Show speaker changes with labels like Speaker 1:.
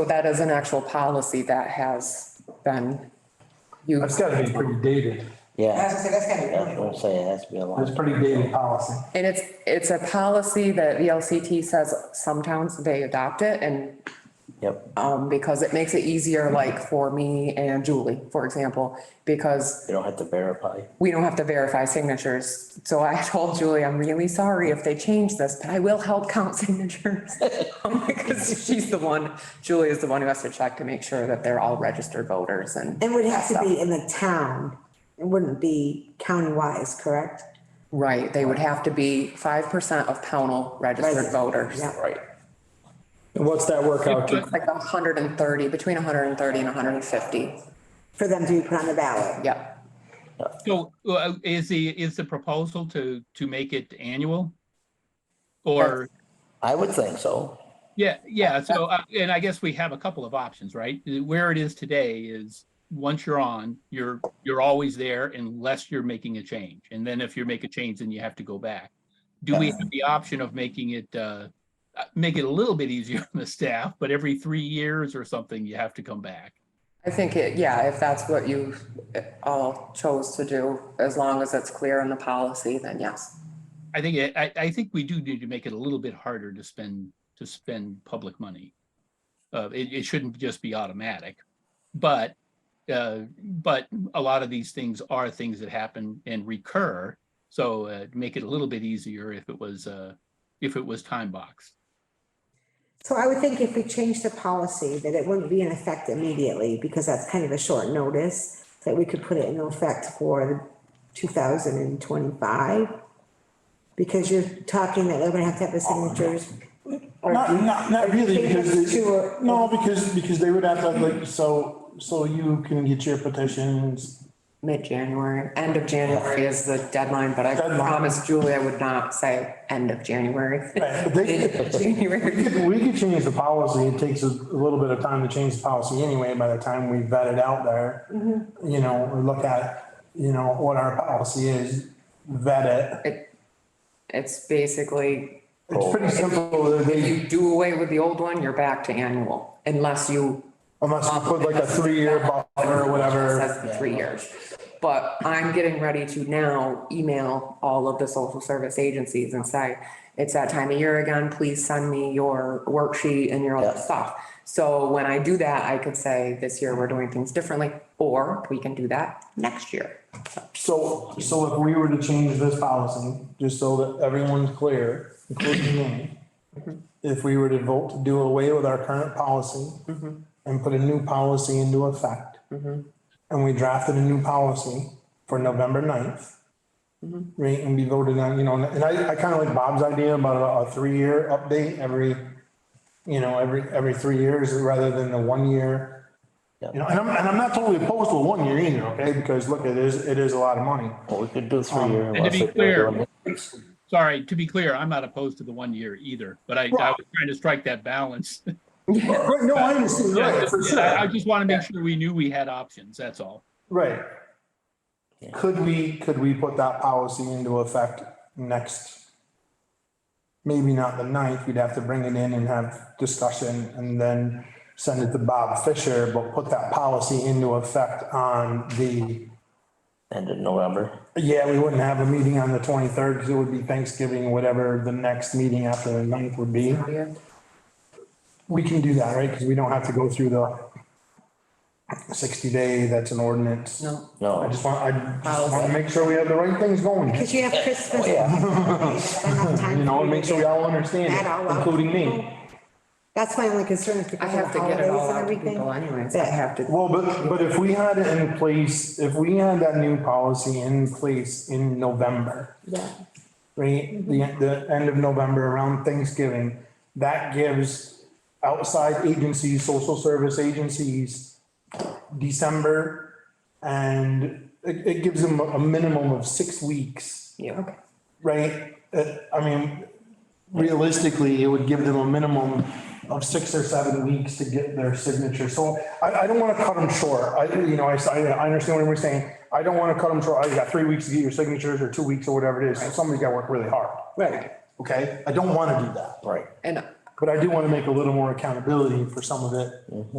Speaker 1: So that is an actual policy that has been
Speaker 2: That's
Speaker 1: used.
Speaker 2: gotta be pretty dated.
Speaker 3: Yeah,
Speaker 4: was gonna say, that's gotta be
Speaker 3: that's
Speaker 4: really
Speaker 3: what
Speaker 4: old.
Speaker 3: I'm saying, it has to be a long.
Speaker 2: That's pretty dated policy.
Speaker 1: And it's, it's a policy that VLCT says some towns, they adopt it and
Speaker 3: Yep,
Speaker 1: um, because it makes it easier, like for me and Julie, for example, because
Speaker 3: you don't have to verify.
Speaker 1: we don't have to verify signatures. So I told Julie, I'm really sorry if they change this, but I will help count signatures. Um, Because she's the one, Julie is the one who has to check to make sure that they're all registered voters and,
Speaker 4: It would have to be in the town. It wouldn't be county-wise, correct?
Speaker 1: right, they would have to be five percent of Pownell registered
Speaker 4: Resident,
Speaker 1: voters.
Speaker 4: yeah.
Speaker 1: Right.
Speaker 5: And what's that work out to?
Speaker 1: Like a hundred and thirty, between hundred and thirty and hundred and fifty,
Speaker 4: For them to be put on the ballot.
Speaker 1: yep.
Speaker 6: So uh, is the, is the proposal to, to make it annual? Or,
Speaker 3: I would think so.
Speaker 6: yeah, yeah, so, uh, and I guess we have a couple of options, right? Where it is today is, once you're on, you're, you're always there unless you're making a change. And then if you make a change, then you have to go back. Do we have the option of making it, uh, uh, make it a little bit easier on the staff, but every three years or something, you have to come back?
Speaker 1: I think it, yeah, if that's what you all chose to do, as long as it's clear in the policy, then yes.
Speaker 6: I think, it- I, I think we do need to make it a little bit harder to spend, to spend public money. Uh, it, it shouldn't just be automatic, but, uh, but a lot of these things are things that happen and recur. So, uh, make it a little bit easier if it was, uh, if it was time boxed.
Speaker 4: So I would think if we changed the policy, that it wouldn't be in effect immediately, because that's kind of a short notice, that we could put it in effect for two thousand and twenty-five. Because you're talking that they're gonna have to have the
Speaker 1: Oh,
Speaker 4: signatures. or
Speaker 7: Not,
Speaker 4: do-
Speaker 7: not, not
Speaker 4: or
Speaker 7: really,
Speaker 4: change
Speaker 7: because,
Speaker 4: to a-
Speaker 7: they- no, because, because they would have to, like, so, so you can get your petitions.
Speaker 1: Mid-January, end of January is the deadline, but I
Speaker 7: Deadline.
Speaker 1: promised Julie I would not say end of January.
Speaker 7: Right, but they- We
Speaker 1: January.
Speaker 7: could- we could change the policy, it takes a little bit of time to change the policy anyway, by the time we vet it out there. You know, we look at, you know, what our policy is, vet it.
Speaker 1: It- It's basically,
Speaker 7: It's pretty simple, they,
Speaker 1: you do away with the old one, you're back to annual, unless you
Speaker 7: unless you put like a three-year buffer or whatever.
Speaker 1: says three years. But I'm getting ready to now email all of the social service agencies and say, it's that time of year again, please send me your worksheet and your other
Speaker 3: Yeah.
Speaker 1: stuff. So when I do that, I could say, this year we're doing things differently, or we can do that next year.
Speaker 7: So, so if we were to change this policy, just so that everyone's clear, including me. If we were to vote to do away with our current policy and put a new policy into effect. And we drafted a new policy for November 9th, Right, and we voted on, you know, and I, I kind of like Bob's idea about a, a three-year update every, you know, every, every three years rather than the one year. You know, and I'm, and I'm not totally opposed to a one year either, okay, because look, it is, it is a lot of money.
Speaker 3: Well, we could do three year.
Speaker 6: Um, And to
Speaker 3: unless
Speaker 6: be
Speaker 3: they're
Speaker 6: clear,
Speaker 3: doing-
Speaker 6: sorry, to be clear, I'm not opposed to the one year either, but I, I was trying to strike that balance.
Speaker 7: Right, no, I understand,
Speaker 6: I
Speaker 7: right, for
Speaker 6: I
Speaker 7: sure,
Speaker 6: just want to make sure we knew we had options, that's all.
Speaker 7: right. Could we, could we put that policy into effect next? Maybe not the ninth, we'd have to bring it in and have discussion and then send it to Bob Fisher, but put that policy into effect on the.
Speaker 3: End of November.
Speaker 7: Yeah, we wouldn't have a meeting on the twenty-third, because it would be Thanksgiving, whatever the next meeting after the ninth would be. We can do that, right? Because we don't have to go through the sixty day, that's an ordinance.
Speaker 1: No,
Speaker 7: I
Speaker 3: No,
Speaker 7: just want, I just want to make sure we have the right things going,
Speaker 4: Cause you have
Speaker 1: Oh,
Speaker 4: Christmas.
Speaker 7: you know, and make sure we all understand
Speaker 4: That all
Speaker 7: it,
Speaker 4: out.
Speaker 7: including me.
Speaker 4: That's my only concern is
Speaker 1: I
Speaker 4: because
Speaker 1: have
Speaker 4: of
Speaker 1: to
Speaker 4: the
Speaker 1: get
Speaker 4: holidays
Speaker 1: it all
Speaker 4: and
Speaker 1: out to people
Speaker 4: everything.
Speaker 1: anyways, I have to.
Speaker 7: Well, but, but if we had it in place, if we had that new policy in place in November,
Speaker 4: Yeah.
Speaker 7: right? The, the end of November around Thanksgiving, that gives outside agencies, social service agencies, December, and it, it gives them a a minimum of six weeks,
Speaker 1: Yeah.
Speaker 7: right? Uh, I mean, realistically, it would give them a minimum of six or seven weeks to get their signature. So I, I don't want to cut them short. I, you know, I, s- I- I understand what we're saying. I don't want to cut them short. I got three weeks to get your signatures or two weeks or whatever it is. So Somebody's got to work really hard.
Speaker 4: Right.
Speaker 7: Okay, I don't want to do that.
Speaker 3: right.
Speaker 1: And
Speaker 7: But I do want to make a little more accountability for some of it